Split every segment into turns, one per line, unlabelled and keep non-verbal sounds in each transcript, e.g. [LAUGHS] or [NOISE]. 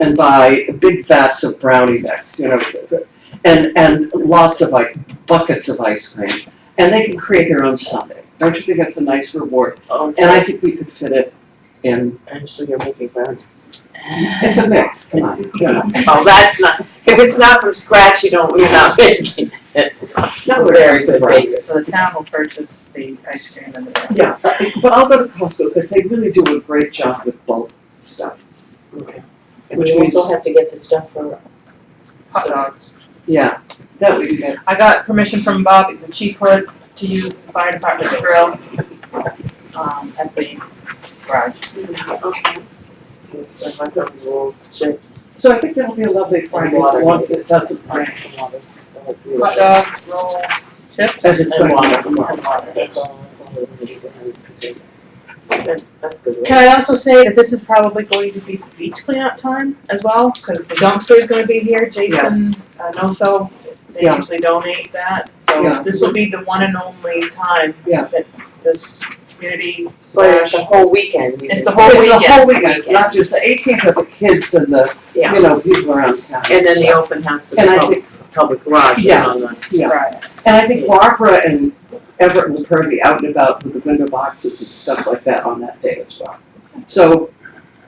and buy big vats of brownie mix, you know, and, and lots of like buckets of ice cream. And they can create their own sundae. Don't you think that's a nice reward? And I think we could fit it in,
Actually, you're making brownies.
it's a mix, come on, you know.
Oh, that's not, if it's not from scratch, you don't, you're not
[LAUGHS]
making it.
No, we're
Very
very
good
brave.
bakers.
So the town will purchase the ice cream and the.
Yeah, but I'll go to Costco because they really do a great job with bulk stuff.
Okay. And
Which
we
means,
also have to get the stuff for,
hot dogs.
yeah, that would be good.
I got permission from Bob, the chief hood, to use the fire department's grill, um, at the garage.
so I got rolls, chips,
So I think that'll be a lovely Friday as
Water.
long as it doesn't rain.
and water.
Hot dogs, rolls, chips.
As it's
And
going on.
water. And water. That's all- that's all we need. That's, that's good, right?
Can I also say that this is probably going to be beach cleanup time as well, because the dumpster is gonna be here,
Yes.
Jason, uh, Noso, they
Yeah.
usually donate that, so
Yeah.
this will be the one and only time
Yeah.
that this community
So it's
slash,
the whole weekend. you
It's
can-
the whole
It's the
weekend.
whole weekend, it's not just the eighteenth of the kids and the,
Yeah.
you know, people around town.
And then the Oh. open house with
And
the
I
public,
think,
public garage is
Yeah.
on the,
yeah,
right,
and I think Barbara and Everett will probably be out and about with the window boxes and stuff like that on that day as well. So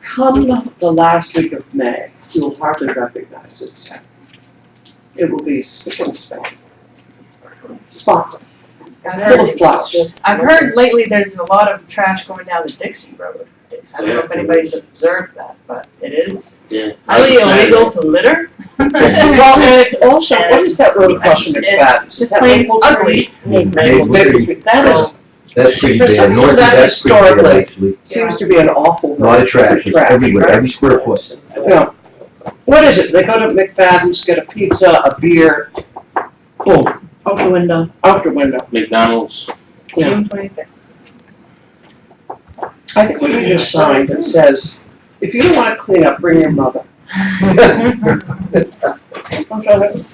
come the last week of May, you'll hardly recognize this town. It will be spickle span, spotless,
I've
full
heard,
of flowers.
it's just.
I've heard lately there's a lot of trash going down the Dixie Road, I don't know if
Yeah.
anybody's observed that, but it is
Yeah.
highly illegal to litter. [LAUGHS]
Well, and it's also, what is that road across from McFadden?
It's
Is
just
that
plain
Maple Tree?
ugly.
Maple Tree. That is
That's pretty
For some
bad, north
reason,
of
that
that's pretty bad,
historically-
actually.
Seems to be an awful.
A lot of trash, it's everywhere,
right?
every square
[LAUGHS]
foot.
Yeah. What is it? They go to McFadden's, get a pizza, a beer, boom,
Out the window.
out the window.
McDonald's.
Yeah.
June twenty-fifth.
I think we need a sign that says, if you don't wanna clean up, bring your mother. I'm trying to-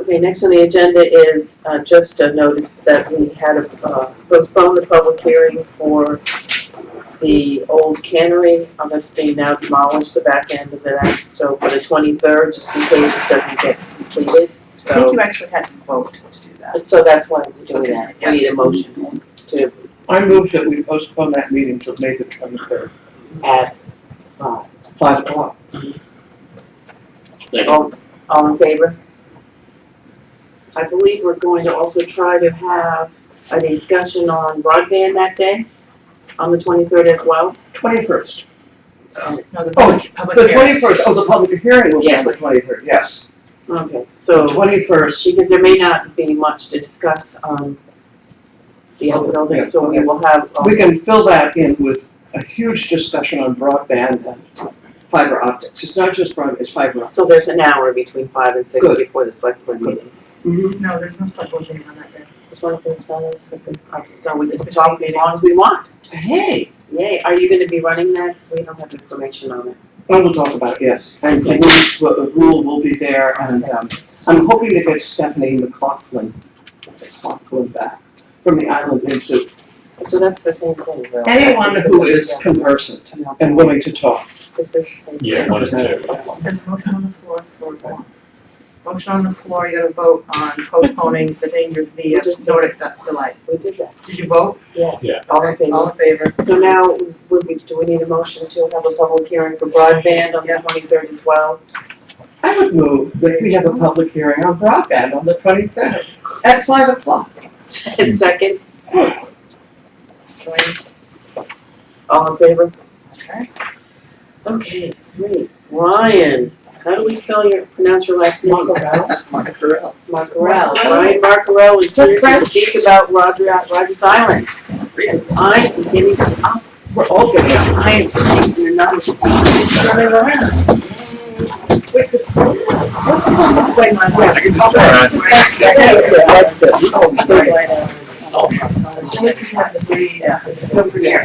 Okay, next on the agenda is uh, just a notice that we had uh, postponed the public hearing for the old cannery uh, that's being now demolished, the back end of that, so for the twenty-third, just in case it doesn't get completed,
I think
so,
you actually had to vote to do that.
so that's why we're doing that. We need a motion to
I move that we postpone that meeting till May the twenty-third,
add five.
five o'clock.
Like,
All, all in favor? I believe we're going to also try to have a discussion on broadband that day, on the twenty-third as well.
Twenty-first.
No, the
Oh,
public, public
The
hearing.
twenty-first, oh, the public hearing will be
Yes.
the twenty-third, yes.
Okay, so,
The twenty-first,
because there may not be much to discuss on the other building, so we will have, um,
We can fill that in with a huge discussion on broadband and fiber optics. It's not just broadband, it's fiber optics.
so there's an hour between five and six
Good.
before the select board meeting.
Mhm.
No, there's no select board meeting on that day.
Just wanna put this on there, so we- okay, So we just talk as long as we want.
Hey,
Yay, are you gonna be running that? We don't have information on it.
I will talk about it, yes. And the rules, the rule will be there and um, I'm hoping to get Stephanie McLaughlin, McLaughlin back from the Island Institute.
So that's the same thing, though.
Anyone who is
Yeah,
conversant
no,
and willing to talk.
This is the same.
Yeah,
thing.
one is there.
There's a motion on the floor for one. Motion on the floor, you gotta vote on postponing the danger, the uh,
Just-
Nordic du- delight.
We did that,
Did you vote?
yes.
Yeah.
All in favor?
All in favor?
So now, would we, do we need a motion to have a public hearing for broadband on the twenty-third as well?
I would move that we have a public hearing on broadband on the twenty-third at five o'clock.
[LAUGHS] Second,
Join.
all in favor?
Okay.
Okay, great. Ryan, how do we spell your, pronounce your last name? [LAUGHS]
Margarel.
Markarel. Ryan Markarel is here to speak about Roger, Rogers Island. I am getting, oh, up.
We're all getting up.
I am seeing your numbers.
Running around.
Wait, my word.
That's it. Oh, great. Don't forget.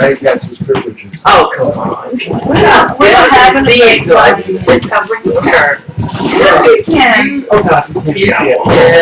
Right, got some privileges.
Oh, come on.
[LAUGHS]
We're not
We don't have
gonna
to see it,
go.
but it's just covering the curve.
Yes, you can.
Oh, God.
Yes, you
Yeah.
can.